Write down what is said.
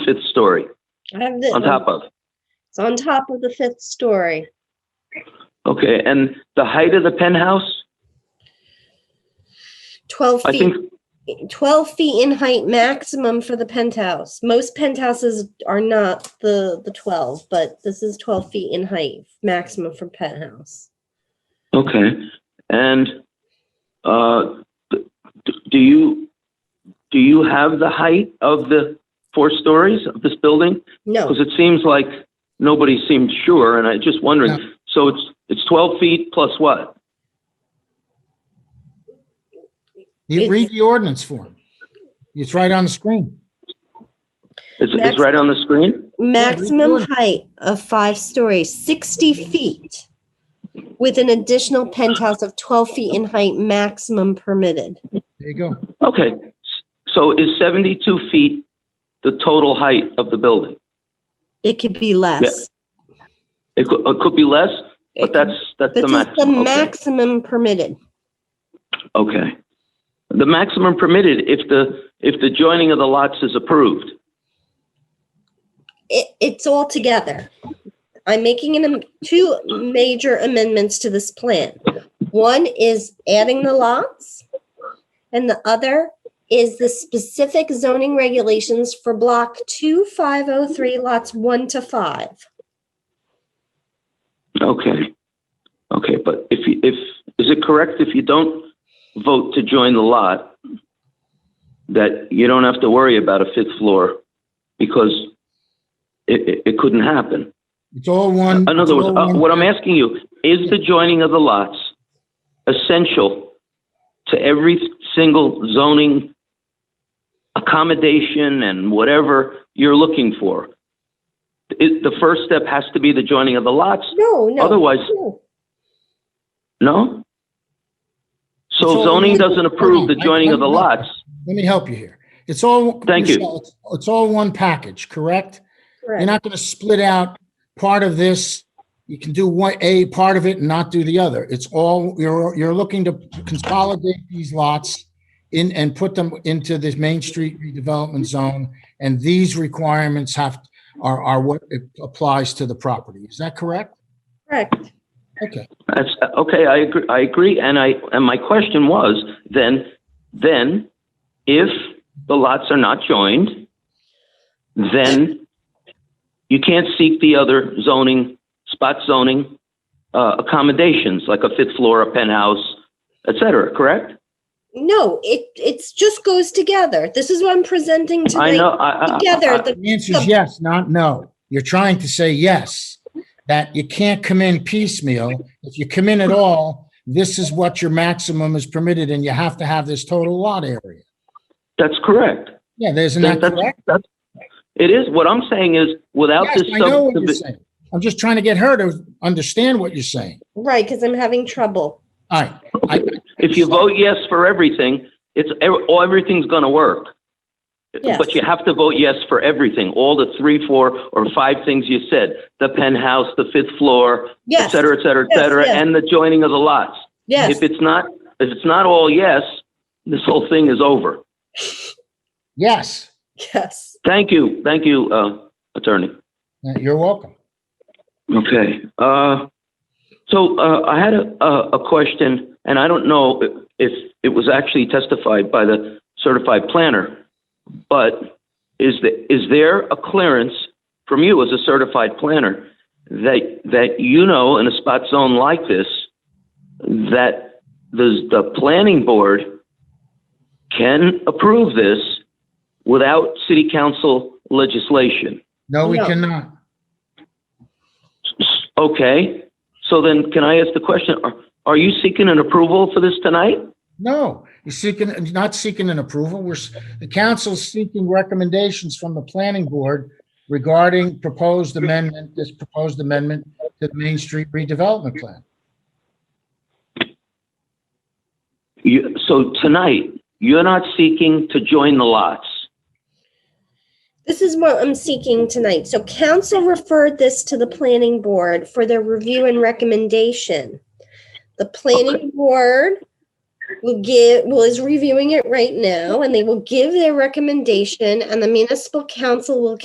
fifth story, I have the, on top of. It's on top of the fifth story. Okay, and the height of the penthouse? 12 I feet, think, 12 feet in height maximum for the penthouse. Most penthouses are not the, the 12, but this is 12 feet in height maximum for penthouse. okay. And, uh, d- d- do you, do you have the height of the four stories of this building? No, Because it seems like nobody seemed sure, and I just wondering, No. so it's, it's 12 feet plus what? You It- read the ordinance form. It's right on the screen. It's, it's Max- right on the screen? maximum doing- height of five stories, 60 feet with an additional penthouse of 12 feet in height maximum permitted. There you go. Okay, S- so is 72 feet the total height of the building? It could be less. It could, it could be less, It but could- that's, that's the But this is the maximum. Okay. maximum permitted. Okay. The maximum permitted if the, if the joining of the lots is approved. it, it's all together. I'm making an, am- two major amendments to this plan. One is adding the lots, and the other is the specific zoning regulations for block 2503, lots 1 to 5. Okay. Okay, but if, you if, is it correct if you don't vote to join the lot, that you don't have to worry about a fifth floor because it, it, it couldn't happen? It's all one. In other it's words, all uh, one- what I'm asking you, is the joining of the lots essential to every single zoning accommodation and whatever you're looking for? It, the first step has to be the joining of the lots, No, no. Otherwise- no. no? So It's all zoning legal. doesn't approve the joining of the lots? Let me help you here. It's all. Thank you. Michelle, it's- It's all one package, correct? You're Correct. not going to split out part of this. You can do one, a part of it and not do the other. It's all, you're, you're looking to consolidate these lots in, and put them into this Main Street redevelopment zone. And these requirements have, are, are what applies to the property. Is that correct? Correct. Okay. That's, okay, I agree, I agree, and I, and my question was, then, then, if the lots are not joined, then you can't seek the other zoning, spot zoning, uh, accommodations, like a fifth floor, a penthouse, et cetera, correct? No, it, it's just goes together. This is what I'm presenting I know, Uh, tonight. I, I- I- Together, the The answer is yes, not no. You're trying to say yes, that you can't come in piecemeal. If you come in at all, this is what your maximum is permitted and you have to have this total lot area. that's correct. Yeah, there's an That- act. that's- that's- It is, what I'm saying is, without Yes, this I know what you're subdivision, saying. I'm just trying to get her to understand what you're saying. Right, because I'm having trouble. All right. I- if you vote yes for everything, it's, ev- oh, everything's gonna work. Yes. But you have to vote yes for everything, all the three, four, or five things you said, the penthouse, the fifth floor, et Yes, cetera, et cetera, et Yes, cetera, yes. and the joining of the lots. yes. If it's not, if it's not all yes, this whole thing is over. Yes, Yes. Thank you, thank you, uh, Attorney. Uh, you're welcome. Okay, uh, so, uh, I had a, a, a question, and I don't know if- if it was actually testified by the certified planner, but is the, is there a clearance from you as a certified planner that, that you know in a spot zone like this, that the, the planning board can approve this without city council legislation? No, we No. cannot. Okay, so then can I ask the question, are, are you seeking an approval for this tonight? No, you're seeking, you're not seeking an approval. We're, s- the council's seeking recommendations from the planning board regarding proposed amendment, this proposed amendment to the Main Street redevelopment plan. You, so tonight, you're not seeking to join the lots? This is what I'm seeking tonight. So council referred this to the planning board for their review and recommendation. The planning board will give, well, is reviewing it right now, and they will give their recommendation, and the municipal council will